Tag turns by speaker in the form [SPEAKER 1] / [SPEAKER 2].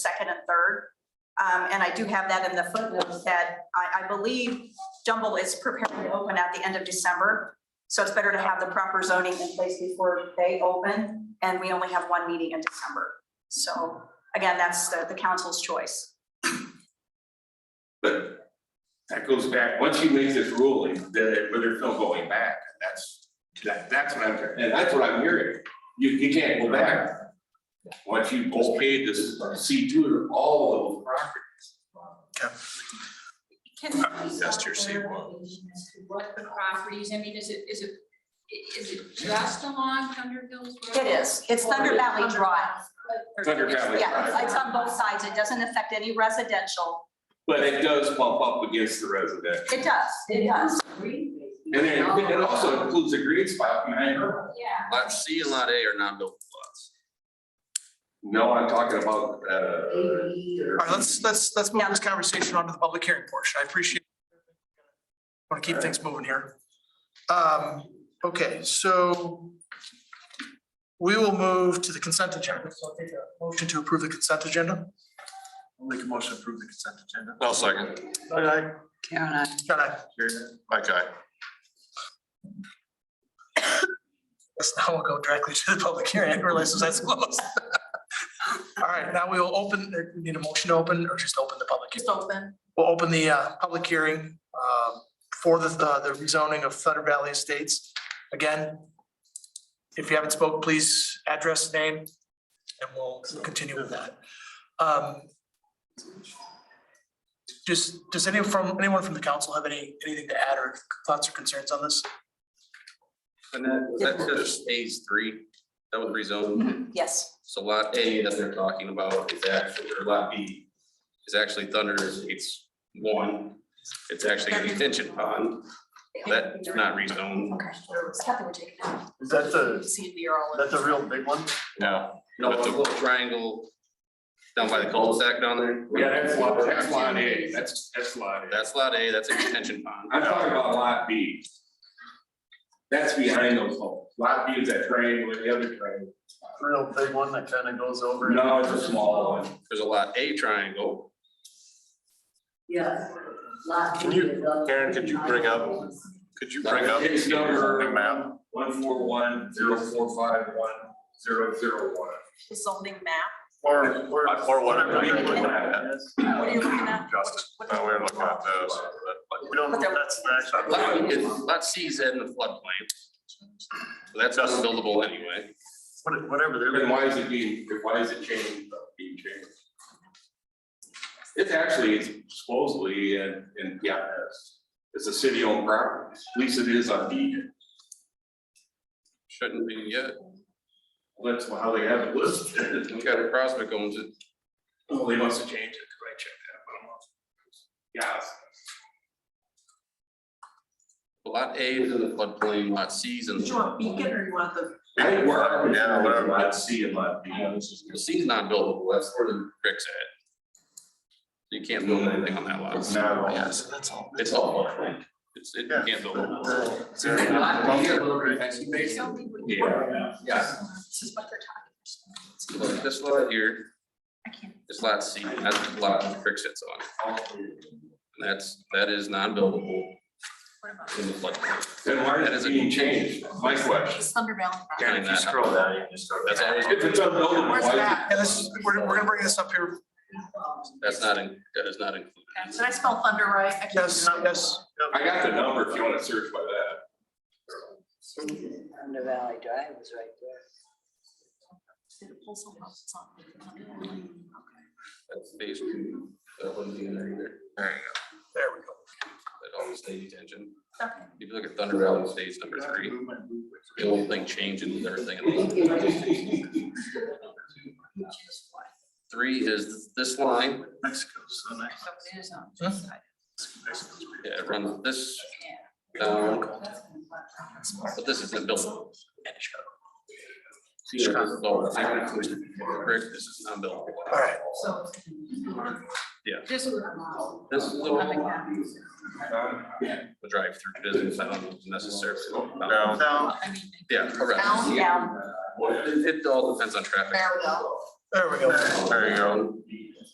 [SPEAKER 1] second and third. Um, and I do have that in the footnotes that I, I believe Jumble is preparing to open at the end of December. So it's better to have the proper zoning in place before they open, and we only have one meeting in December. So again, that's the, the council's choice.
[SPEAKER 2] But that goes back, once you make this ruling, there, well, there's no going back, that's, that, that's what I'm, and that's what I'm hearing. You, you can't go back. Once you okayed this C two, all of those properties.
[SPEAKER 3] Can
[SPEAKER 2] Uh,
[SPEAKER 3] we
[SPEAKER 2] that's
[SPEAKER 3] stop
[SPEAKER 2] your
[SPEAKER 3] clarification as to What the properties, I mean, is it, is it, i- is it just along Thunder Hills Road?
[SPEAKER 1] It is. It's Thunder Valley Drive.
[SPEAKER 3] Or-
[SPEAKER 2] Thunder Valley
[SPEAKER 1] Yeah,
[SPEAKER 2] Drive,
[SPEAKER 1] it's on both sides. It doesn't affect any residential.
[SPEAKER 2] but it does bump up against the resident.
[SPEAKER 1] It does, it does.
[SPEAKER 2] And then it- it also includes a green spot behind her.
[SPEAKER 3] Yeah.
[SPEAKER 4] Lot C and lot A are non-buildable lots.
[SPEAKER 2] No, I'm talking about, uh.
[SPEAKER 5] All right, let's, let's, let's move
[SPEAKER 1] Yeah.
[SPEAKER 5] this conversation on to the public hearing portion. I appreciate. Want to keep things moving here. Um, okay, so we will move to the consent agenda. So I'll take a Motion to approve the consent agenda.
[SPEAKER 6] I'll Make a motion to approve the consent agenda.
[SPEAKER 4] No second.
[SPEAKER 5] Aye, aye. John, aye.
[SPEAKER 4] Okay.
[SPEAKER 5] Let's now we'll go directly to the public hearing. I didn't realize that's close. All right, now we will open, uh, we need a motion to open or just open the public? hearing?
[SPEAKER 3] Just open.
[SPEAKER 5] We'll open the uh, public hearing um, for the the the rezoning of Thunder Valley Estates. Again, if you haven't spoke, please address, name, and we'll continue with that. Um, Just, does anyone from, anyone from the council have any, anything to add or thoughts or concerns on this?
[SPEAKER 4] And that, that's just A's three, that was rezoned,
[SPEAKER 1] Mhm, Yes,
[SPEAKER 4] so lot A that they're talking about is actually, or lot B is actually Thunder's, it's one. It's actually a detention pond, that's not rezoned.
[SPEAKER 1] okay. Kathy would take it now.
[SPEAKER 6] Is that the,
[SPEAKER 3] See, we are all.
[SPEAKER 6] that's a real big one?
[SPEAKER 4] No. No, it's a little triangle down by the cul-de-sac down there.
[SPEAKER 2] Yeah, that's lot, that's lot A, that's, that's lot A.
[SPEAKER 4] That's lot A, that's a detention pond.
[SPEAKER 2] I'm talking about lot B. That's behind those homes. Lot B is that triangle, the other triangle.
[SPEAKER 6] Real big one that kind of goes over. and-
[SPEAKER 2] No, it's a small one.
[SPEAKER 4] There's a lot A triangle,
[SPEAKER 7] Yeah.
[SPEAKER 8] Can you- Karen, could you bring up- Could you bring up?
[SPEAKER 2] It's number
[SPEAKER 8] the map?
[SPEAKER 2] one four one zero four five one zero zero one.
[SPEAKER 3] The zoning map.
[SPEAKER 6] Or, or.
[SPEAKER 8] Or whatever
[SPEAKER 6] whatever
[SPEAKER 8] we
[SPEAKER 6] you
[SPEAKER 8] would
[SPEAKER 6] look
[SPEAKER 8] look
[SPEAKER 6] at
[SPEAKER 8] at.
[SPEAKER 6] it is.
[SPEAKER 3] What are you looking at?
[SPEAKER 8] Justice, no, we're looking at those.
[SPEAKER 6] We don't know if that's the actual.
[SPEAKER 4] Lot, it's, lot C is in the floodplain. So that's unbuildable anyway.
[SPEAKER 6] what- Whatever they're.
[SPEAKER 2] Then why is it being, why is it changed, uh, being changed? It's actually, it's supposedly, and, and yeah, it's, it's a city owned property. At least it is on deed.
[SPEAKER 4] Shouldn't be yet.
[SPEAKER 2] That's how they have it listed.
[SPEAKER 4] We've got a prospect owns it.
[SPEAKER 2] Well, they must have changed it, because I checked that, but I'm not. Yeah, it's-
[SPEAKER 4] Lot A is in the floodplain, lot C is in
[SPEAKER 3] Do you
[SPEAKER 4] the,
[SPEAKER 3] want beacon or you want the?
[SPEAKER 2] I think we're up and
[SPEAKER 8] Yeah,
[SPEAKER 2] down,
[SPEAKER 8] whatever.
[SPEAKER 2] lot C and lot B.
[SPEAKER 4] C is not buildable, that's where the bricks at. You can't build anything on that lot.
[SPEAKER 2] It's not all.
[SPEAKER 4] Yes, Oh, that's all. It's all floodplain. It's, it, you can't build. it.
[SPEAKER 2] Yeah.
[SPEAKER 4] Yeah.
[SPEAKER 3] This is what they're talking.
[SPEAKER 4] Look, This lot here,
[SPEAKER 3] I can't.
[SPEAKER 4] this lot C, that's the lot the brick sits on. And that's, that is non-buildable
[SPEAKER 3] What about?
[SPEAKER 4] in the floodplain.
[SPEAKER 2] Then why
[SPEAKER 4] That
[SPEAKER 2] is
[SPEAKER 4] is a-
[SPEAKER 2] it being changed? My question.
[SPEAKER 3] It's Thunder Valley.
[SPEAKER 4] Karen, if you scroll
[SPEAKER 8] down, you can start.
[SPEAKER 4] That's always,
[SPEAKER 2] If it's unbuildable, why
[SPEAKER 3] Where's
[SPEAKER 2] is it-
[SPEAKER 3] that?
[SPEAKER 5] Yeah, this, is- we're, we're gonna bring this up here.
[SPEAKER 4] that's not, in- that is not included.
[SPEAKER 3] Did I spell thunder right? I can't-
[SPEAKER 5] Yes, yes.
[SPEAKER 2] I got the number if you wanna search by that.
[SPEAKER 7] Thunder Valley Drive was right there.
[SPEAKER 3] Did it pull something else? It's not Thunder Valley.
[SPEAKER 4] That's basically, that wouldn't be in there either. There you go.
[SPEAKER 5] There we go.
[SPEAKER 4] That always stays attention.
[SPEAKER 3] Okay.
[SPEAKER 4] If you look at Thunder Valley Estates number three, the whole thing changing with everything. in it. Three is this line,
[SPEAKER 6] Mexico's the next,
[SPEAKER 3] So it is on.
[SPEAKER 5] Hmm?
[SPEAKER 6] Mexico's. big.
[SPEAKER 4] yeah, it runs this down, but this isn't buildable. See, this is all- this is brick, this is not buildable.
[SPEAKER 5] All right.
[SPEAKER 3] So.
[SPEAKER 4] Yeah.
[SPEAKER 3] Just.
[SPEAKER 4] This is the
[SPEAKER 2] Uh, yeah.
[SPEAKER 4] drive-through business, I don't necessarily.
[SPEAKER 8] No.
[SPEAKER 6] Now,
[SPEAKER 3] I mean,
[SPEAKER 4] Yeah, correct.
[SPEAKER 3] Down,
[SPEAKER 1] Yeah.
[SPEAKER 4] It it all depends on traffic.
[SPEAKER 3] There we go.
[SPEAKER 5] There we go.
[SPEAKER 8] There you go.